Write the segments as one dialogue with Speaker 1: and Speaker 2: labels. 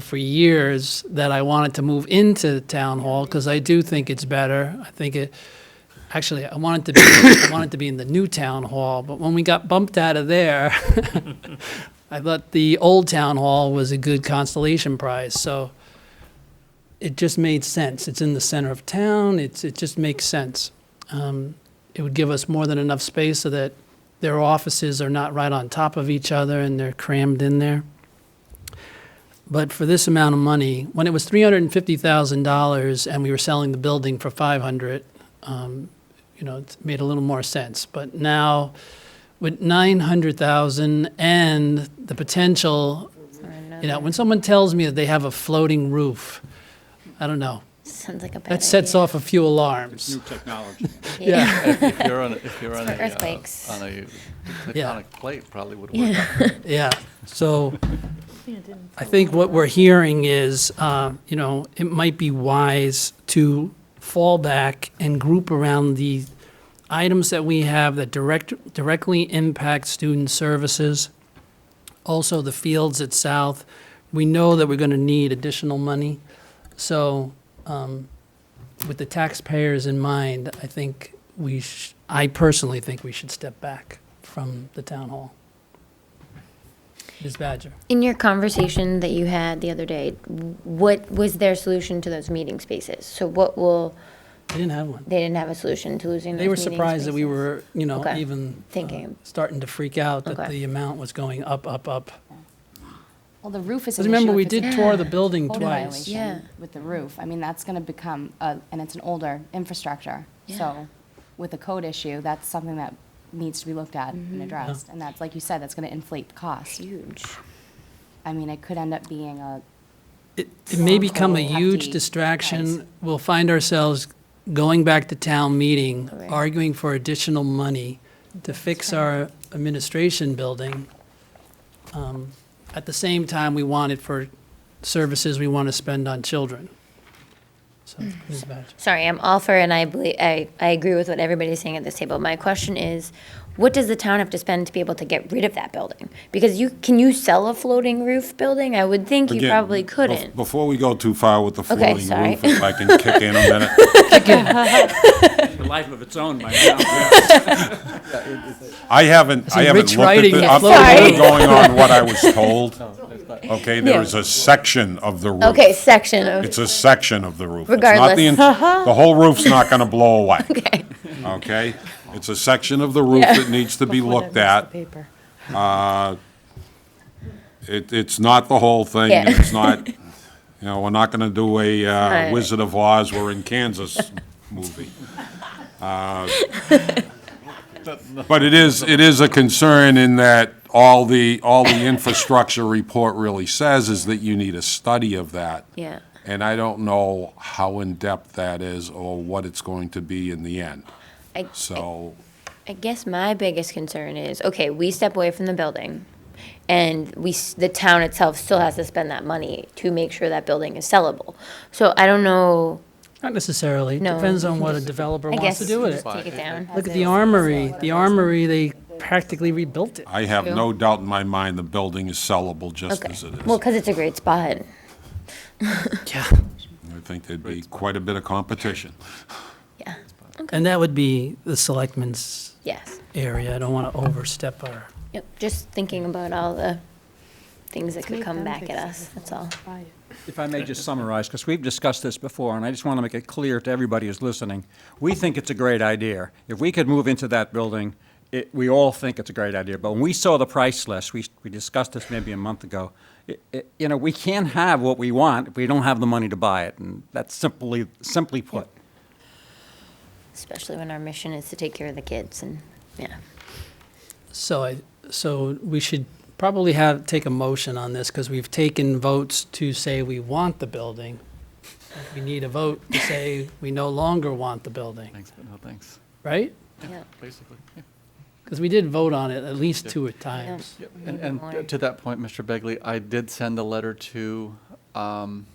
Speaker 1: for years that I wanted to move into town hall because I do think it's better. I think it, actually, I wanted to be, I wanted to be in the new town hall, but when we got bumped out of there, I thought the old town hall was a good constellation prize, so it just made sense. It's in the center of town. It's, it just makes sense. Um, it would give us more than enough space so that their offices are not right on top of each other and they're crammed in there. But for this amount of money, when it was three hundred and fifty thousand dollars and we were selling the building for five hundred, um, you know, it made a little more sense. But now, with nine hundred thousand and the potential, you know, when someone tells me that they have a floating roof, I don't know.
Speaker 2: Sounds like a bad
Speaker 1: That sets
Speaker 2: idea.
Speaker 1: off a few alarms.
Speaker 3: New technology.
Speaker 2: Yeah.
Speaker 4: If if you're on, a- if you're on
Speaker 2: for
Speaker 4: a, uh,
Speaker 2: earthquakes.
Speaker 4: on a
Speaker 1: Yeah.
Speaker 4: tectonic plate, probably would work out.
Speaker 1: Yeah, so I think what we're hearing is, uh, you know, it might be wise to fall back and group around the items that we have that direct, directly impact student services, also the fields at South. We know that we're going to need additional money, so um, with the taxpayers in mind, I think we, sh- I personally think we should step back from the town hall. Ms. Badger.
Speaker 2: In your conversation that you had the other day, what was their solution to those meeting spaces? So what will,
Speaker 1: I didn't have one.
Speaker 2: they didn't have a solution to losing those
Speaker 1: They
Speaker 2: meeting
Speaker 1: were
Speaker 2: spaces?
Speaker 1: surprised that we were, you know,
Speaker 2: Okay.
Speaker 1: even uh,
Speaker 2: Thinking.
Speaker 1: starting to freak out that
Speaker 2: Okay.
Speaker 1: the amount was going up, up, up.
Speaker 5: Well, the roof is an
Speaker 1: Because
Speaker 5: issue.
Speaker 1: remember, we
Speaker 5: if it's
Speaker 1: did
Speaker 5: a
Speaker 1: tour the building
Speaker 5: code
Speaker 1: twice.
Speaker 5: violation
Speaker 2: Yeah.
Speaker 5: With the roof, I mean, that's gonna become, uh, and it's an older infrastructure, so with a code issue, that's something that needs to be looked at and addressed, and that's, like you said, that's gonna inflate the cost.
Speaker 2: Huge.
Speaker 5: I mean, it could end up being a,
Speaker 1: It it may
Speaker 5: Some
Speaker 1: become a
Speaker 5: cold,
Speaker 1: huge
Speaker 5: hefty price.
Speaker 1: distraction. We'll find ourselves going back to town meeting,
Speaker 2: Right.
Speaker 1: arguing for additional money to fix our administration building. Um, At the same time, we want it for services we want to spend on children. So, Ms. Badger.
Speaker 2: Sorry, I'm all for, and I believe, I, I agree with what everybody's saying at this table. My question is, what does the town have to spend to be able to get rid of that building? Because you, can you sell a floating roof building? I would think you
Speaker 6: Again,
Speaker 2: probably
Speaker 6: bef-
Speaker 2: couldn't.
Speaker 6: Before we go too far with the floating
Speaker 2: sorry.
Speaker 6: roof, if I can kick in a minute.
Speaker 3: A life of its own by now.
Speaker 6: I haven't, I
Speaker 1: See,
Speaker 6: haven't
Speaker 1: Rich
Speaker 6: looked at
Speaker 1: writing
Speaker 6: the,
Speaker 1: at
Speaker 6: I'm
Speaker 2: floating
Speaker 6: only going on what I was told. Okay,
Speaker 2: Yeah.
Speaker 6: there is a section of the roof.
Speaker 2: Okay, section,
Speaker 6: It's
Speaker 2: okay,
Speaker 6: a section of the roof. It's not
Speaker 2: Regardless.
Speaker 6: the en- The whole roof's not gonna blow away, okay? It's a section of the roof that needs to be looked at. Uh, It, it's not the whole thing, and
Speaker 2: Yeah.
Speaker 6: it's not, you know, we're not gonna do a uh,
Speaker 2: Right.
Speaker 6: Wizard of Oz, we're in Kansas movie. Uh, But it is, it is a concern in that all the, all the infrastructure report really says is that you need a study of that.
Speaker 2: yeah.
Speaker 6: And I don't know how in-depth that is or what it's going to be in the end.
Speaker 2: I-
Speaker 6: So,
Speaker 2: I guess my biggest concern is okay, we step away from the building, and we s- the town itself still has to spend that money to make sure that building is sellable. So I don't know.
Speaker 1: Not necessarily. It
Speaker 2: No.
Speaker 1: Depends on what a developer
Speaker 2: I
Speaker 1: wants
Speaker 2: guess
Speaker 1: to do with it.
Speaker 2: just take it down.
Speaker 1: Look at the armory. The armory, they practically rebuilt it.
Speaker 6: I have no doubt in my mind the building is sellable just
Speaker 2: Okay.
Speaker 6: as it
Speaker 2: Well,
Speaker 6: is.
Speaker 2: because it's a great spot.
Speaker 1: Yeah.
Speaker 6: I think there'd be quite a bit of competition.
Speaker 2: Yeah.
Speaker 1: And that would be the selectmen's
Speaker 2: Yes.
Speaker 1: area. I don't want to overstep our,
Speaker 2: Yep. Just thinking about all the things that could
Speaker 7: make
Speaker 2: come
Speaker 7: them
Speaker 2: back
Speaker 7: fix
Speaker 2: at
Speaker 7: it.
Speaker 2: us. That's all.
Speaker 7: Buy it.
Speaker 3: If I may just summarize, because we've discussed this before, and I just want to make it clear to everybody who's listening. We think it's a great idea. If we could move into that building, it, we all think it's a great idea. But when we saw the price list, we, we discussed this maybe a month ago, it, it, you know, we can't have what we want if we don't have the money to buy it, and that's simply, simply put.
Speaker 2: Especially when our mission is to take care of the kids and yeah.
Speaker 1: so I, so we should probably have, take a motion on this because we've taken votes to say we want the building. We need a vote to say we no longer want the building,
Speaker 4: Thanks, but no thanks,
Speaker 1: right?
Speaker 2: Yeah.
Speaker 4: basically. yeah.
Speaker 1: Because we did vote on it at least two times.
Speaker 2: Yeah.
Speaker 4: And,
Speaker 2: Maybe more.
Speaker 4: and to that point, Mr. Begley, I did send a letter to um,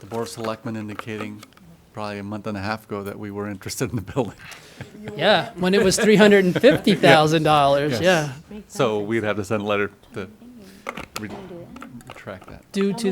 Speaker 4: the Board of Selectmen indicating probably a month and a half ago that we were interested in the building.
Speaker 1: Yeah, when it was three hundred and fifty thousand dollars, yeah.
Speaker 4: So we'd have to send a letter to re-
Speaker 8: track that.
Speaker 4: due to